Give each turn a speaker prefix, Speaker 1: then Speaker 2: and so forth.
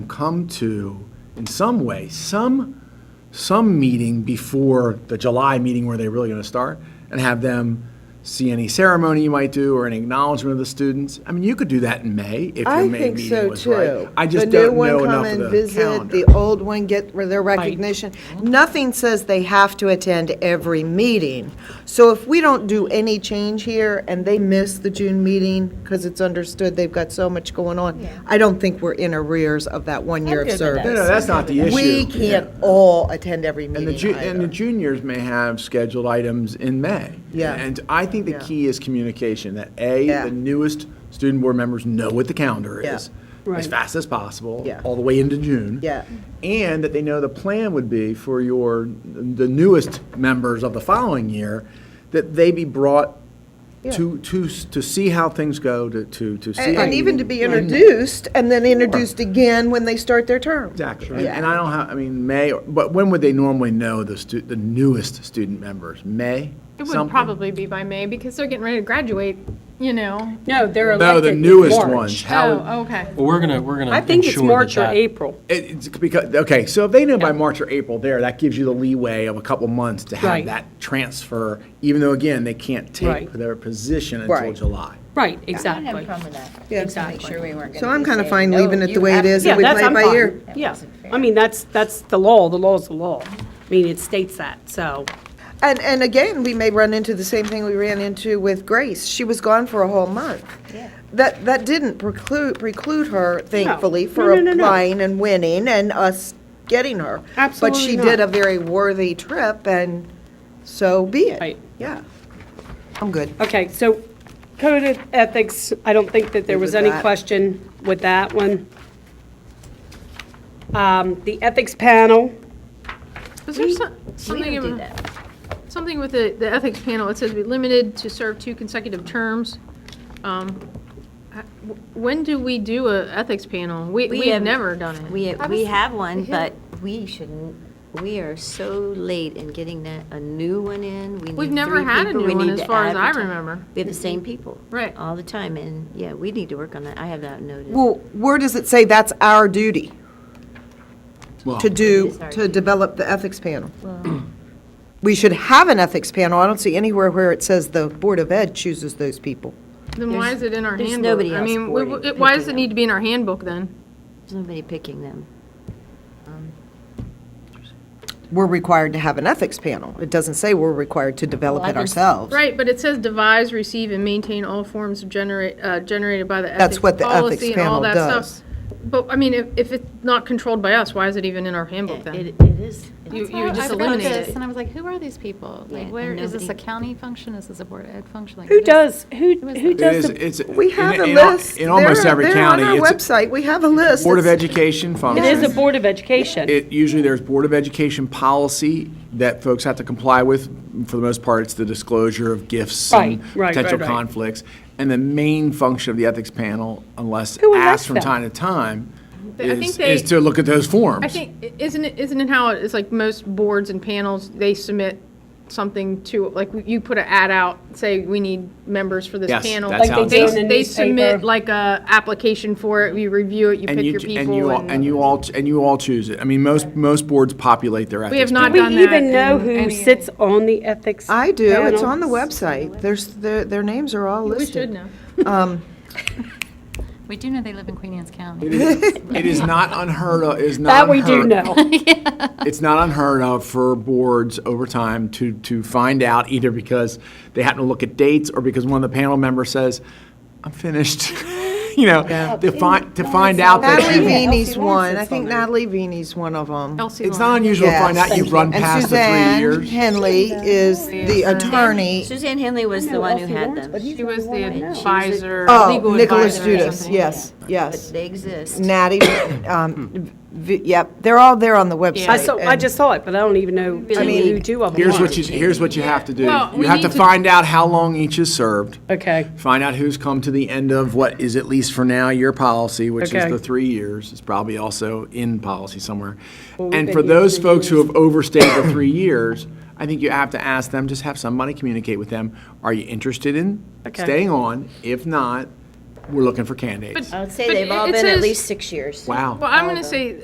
Speaker 1: come to, in some way, some, some meeting before the July meeting where they're really going to start, and have them see any ceremony you might do or an acknowledgement of the students. I mean, you could do that in May if your
Speaker 2: I
Speaker 1: May
Speaker 2: think
Speaker 1: meeting
Speaker 2: so
Speaker 1: was right.
Speaker 2: too.
Speaker 1: I just
Speaker 2: The new
Speaker 1: don't
Speaker 2: one
Speaker 1: know
Speaker 2: come
Speaker 1: enough
Speaker 2: and
Speaker 1: of the
Speaker 2: visit,
Speaker 1: calendar. Mm-hmm.
Speaker 2: The old one get their recognition. Nothing says they have to attend every meeting. So if we don't do any change here and they miss the June meeting because it's understood they've got so much going on, I don't think we're in arrears of that one year of
Speaker 3: good with that.
Speaker 1: No,
Speaker 2: service.
Speaker 1: no, that's not the issue.
Speaker 2: We can't all attend every
Speaker 1: And the,
Speaker 2: meeting
Speaker 1: ju- and the
Speaker 2: either.
Speaker 1: juniors may have scheduled items in May.
Speaker 2: Yeah.
Speaker 1: And I think the
Speaker 2: Yeah.
Speaker 1: key is communication, that A,
Speaker 2: Yeah.
Speaker 1: the newest student board members know what the calendar
Speaker 2: Yeah.
Speaker 1: is as fast as possible,
Speaker 2: Yeah.
Speaker 1: all the way into June.
Speaker 2: Yeah.
Speaker 1: And that they know the plan would be for your, the newest members of the following year, that they be brought to, to, s- to see how things go, to, to to see.
Speaker 2: And
Speaker 1: how
Speaker 2: and
Speaker 1: you-
Speaker 2: even to be introduced and then introduced again when they start their term.
Speaker 1: Exactly. And- And I don't have, I mean, May, or- but when would they normally know the stu, the newest student members? May?
Speaker 4: It would
Speaker 1: Something?
Speaker 4: probably be by May because they're getting ready to graduate, you know.
Speaker 3: No, they're elected.
Speaker 1: No, the
Speaker 3: in
Speaker 1: newest
Speaker 3: March.
Speaker 1: ones. How,
Speaker 4: Oh, okay.
Speaker 5: Well, we're gonna, we're gonna.
Speaker 3: I think it's
Speaker 5: ensure that
Speaker 3: March or
Speaker 5: that-
Speaker 3: April.
Speaker 1: it- it's because, okay, so if they know by March or April there, that gives you the leeway of a couple months to have
Speaker 3: Right.
Speaker 1: that transfer, even though, again, they can't take
Speaker 3: Right.
Speaker 1: their position until
Speaker 2: Right.
Speaker 1: July.
Speaker 3: Right,
Speaker 6: I didn't have
Speaker 3: exactly.
Speaker 6: a problem with that.
Speaker 2: Yeah.
Speaker 6: Just to Make sure we weren't going to.
Speaker 2: So I'm kinda fine leaving it the way it is
Speaker 3: Yeah,
Speaker 2: and we
Speaker 3: that's,
Speaker 2: play it
Speaker 3: I'm
Speaker 2: by ear.
Speaker 3: fine. Yeah, I mean, that's, that's the law, the law's the law. I mean, it states that, so,
Speaker 2: And, and again, we may run into the same thing we ran into with Grace. She was gone for a whole month. That, that didn't preclude, preclude her, thankfully,
Speaker 3: No,
Speaker 2: for
Speaker 3: no, no, no.
Speaker 2: applying and winning and us getting her. But
Speaker 3: Absolutely
Speaker 2: she
Speaker 3: not.
Speaker 2: did a very worthy trip, and so be it.
Speaker 3: Right.
Speaker 2: Yeah. I'm good.
Speaker 3: okay, so code of ethics, I don't think that there
Speaker 2: Good
Speaker 3: was
Speaker 2: with
Speaker 3: any
Speaker 2: that.
Speaker 3: question with that one. Um, The ethics panel,
Speaker 4: Was there some-
Speaker 6: We
Speaker 4: something,
Speaker 6: don't do
Speaker 4: in-
Speaker 6: that.
Speaker 4: something with the, the ethics panel? It says be limited to serve two consecutive terms. Um, I- w- When do we do a ethics panel? We,
Speaker 6: We
Speaker 4: we've
Speaker 6: have-
Speaker 4: never done it.
Speaker 6: We, we have one, but we shouldn't, we are so late in getting that, a new one in. We
Speaker 4: We've
Speaker 6: need
Speaker 4: never
Speaker 6: three
Speaker 4: had a
Speaker 6: people.
Speaker 4: new
Speaker 6: We
Speaker 4: one
Speaker 6: need
Speaker 4: as
Speaker 6: to
Speaker 4: far as I
Speaker 6: advertise.
Speaker 4: remember.
Speaker 6: We have the same people.
Speaker 4: Right.
Speaker 6: All the time, and yeah, we need to work on that. I have that noted.
Speaker 2: Well, where does it say that's our duty
Speaker 1: Well,
Speaker 2: to do,
Speaker 6: It is our
Speaker 2: to
Speaker 6: duty.
Speaker 2: develop the ethics panel? We should have an ethics panel. I don't see anywhere where it says the Board of Ed chooses those people.
Speaker 4: Then why is it in our
Speaker 6: there's
Speaker 4: handbook?
Speaker 6: nobody
Speaker 4: I
Speaker 6: else
Speaker 4: mean, we-
Speaker 6: boarding-
Speaker 4: it- why does it
Speaker 6: picking
Speaker 4: need to be in our handbook then?
Speaker 6: There's nobody picking them.
Speaker 2: we're required to have an ethics panel. It doesn't say we're required to develop
Speaker 6: Well, I
Speaker 2: it
Speaker 6: can-
Speaker 2: ourselves.
Speaker 4: Right, but it says devise, receive, and maintain all forms of generate, uh, generated by the ethics.
Speaker 2: That's what the ethics
Speaker 4: policy and all
Speaker 2: panel
Speaker 4: that stuff.
Speaker 2: does.
Speaker 4: But, I mean, if, if it's not controlled by us, why is it even in our handbook
Speaker 6: It,
Speaker 4: then?
Speaker 6: it is.
Speaker 4: You,
Speaker 7: That's why
Speaker 4: you would just
Speaker 7: I looked at
Speaker 4: eliminate
Speaker 7: this
Speaker 4: it.
Speaker 7: And I was like, who are these people?
Speaker 6: Yeah,
Speaker 7: Like,
Speaker 6: and
Speaker 7: where, is this a
Speaker 6: nobody-
Speaker 7: county function? Is this a board of ed function? Like,
Speaker 3: who
Speaker 7: what is-
Speaker 3: does, who, who
Speaker 1: It is,
Speaker 3: does the,
Speaker 1: it's.
Speaker 2: We have
Speaker 1: in-
Speaker 2: a
Speaker 1: in al-
Speaker 2: list.
Speaker 1: In almost
Speaker 2: They're-
Speaker 1: every county.
Speaker 2: They're on our
Speaker 1: it's a
Speaker 2: website. We have a list.
Speaker 1: Board of
Speaker 2: It's-
Speaker 1: Education
Speaker 3: it
Speaker 1: functions.
Speaker 3: is a Board of Education.
Speaker 1: It, usually there's Board of Education policy that folks have to comply with. For the most part, it's the disclosure of gifts
Speaker 3: Right,
Speaker 1: and
Speaker 3: right, right,
Speaker 1: potential
Speaker 3: right.
Speaker 1: conflicts. And the main function of the ethics panel, unless
Speaker 3: Who
Speaker 1: asked
Speaker 3: elects
Speaker 1: from
Speaker 3: them?
Speaker 1: time to time,
Speaker 4: I think
Speaker 1: is,
Speaker 4: they-
Speaker 1: is to look at those forms.
Speaker 4: I think, i- isn't it, isn't it how it's like most boards and panels, they submit something to, like, you put an ad out, say, we need members for this
Speaker 1: Yes,
Speaker 4: panel.
Speaker 1: that's Like how
Speaker 3: they it's do done. in
Speaker 4: They-
Speaker 3: the
Speaker 4: They submit
Speaker 3: newspaper.
Speaker 4: like a application for it, you review it, you
Speaker 1: And
Speaker 4: pick
Speaker 1: you
Speaker 4: your
Speaker 1: ch- And you,
Speaker 4: people
Speaker 1: all- and you all, and you all choose it. I mean, most, most boards populate their ethics.
Speaker 4: We have not
Speaker 3: Do
Speaker 1: panel.
Speaker 4: done
Speaker 3: we
Speaker 4: that
Speaker 3: even know
Speaker 4: in
Speaker 3: who
Speaker 4: any-
Speaker 3: sits on the ethics panel?
Speaker 2: I do. It's on the website. There's, their, their names are all
Speaker 4: We
Speaker 2: listed.
Speaker 4: should know.
Speaker 7: We do know they live in Queen Anne's County.
Speaker 1: It is not unheard of, it is not
Speaker 3: That we
Speaker 1: unheard.
Speaker 3: do know.
Speaker 1: it's not unheard of for boards over time to, to find out either because they happen to look at dates or because one of the panel members says, I'm finished. You know, to find, to find out that
Speaker 2: Natalie
Speaker 1: you,
Speaker 2: Vini's one. I think Natalie Vini's one of them.
Speaker 4: Elsie
Speaker 1: it's
Speaker 4: Lawrence.
Speaker 1: not unusual to find out
Speaker 2: Yes.
Speaker 1: you've run
Speaker 2: And
Speaker 1: past the three
Speaker 2: Suzanne
Speaker 1: years.
Speaker 2: Henley is the attorney.
Speaker 6: Suzanne Henley was the one who had them.
Speaker 4: She was the
Speaker 6: know.
Speaker 4: advisor,
Speaker 2: Oh,
Speaker 4: legal
Speaker 2: Nicholas
Speaker 4: advisor or
Speaker 2: Judas.
Speaker 4: something.
Speaker 2: Yes, yes.
Speaker 6: They exist.
Speaker 2: Natty, um, v- yep, they're all there on the website.
Speaker 3: I saw, I
Speaker 2: and-
Speaker 3: just saw it, but I don't even know
Speaker 6: I
Speaker 3: who
Speaker 6: mean,
Speaker 3: two of them
Speaker 1: Here's
Speaker 3: are.
Speaker 1: what you, here's what you have to do.
Speaker 4: Well,
Speaker 1: You
Speaker 4: we
Speaker 1: have
Speaker 4: need
Speaker 1: to
Speaker 4: to-
Speaker 1: find out how long each has served.
Speaker 3: Okay,
Speaker 1: Find out who's come to the end of what is at least for now your policy, which is
Speaker 3: Okay.
Speaker 1: the three years. It's probably also in policy somewhere.
Speaker 3: we've
Speaker 1: And
Speaker 3: been
Speaker 1: for
Speaker 3: here
Speaker 1: those
Speaker 3: three
Speaker 1: folks who have overstayed the three years, I think you have to ask them, just have somebody communicate with them. Are you interested in
Speaker 3: Okay.
Speaker 1: staying on? If not, we're looking for candidates.
Speaker 4: But-
Speaker 6: I would say
Speaker 4: but
Speaker 6: they've all
Speaker 4: it
Speaker 6: been at
Speaker 4: says-
Speaker 3: uh,
Speaker 6: least six years.
Speaker 1: Wow.
Speaker 4: Well, I'm going to say,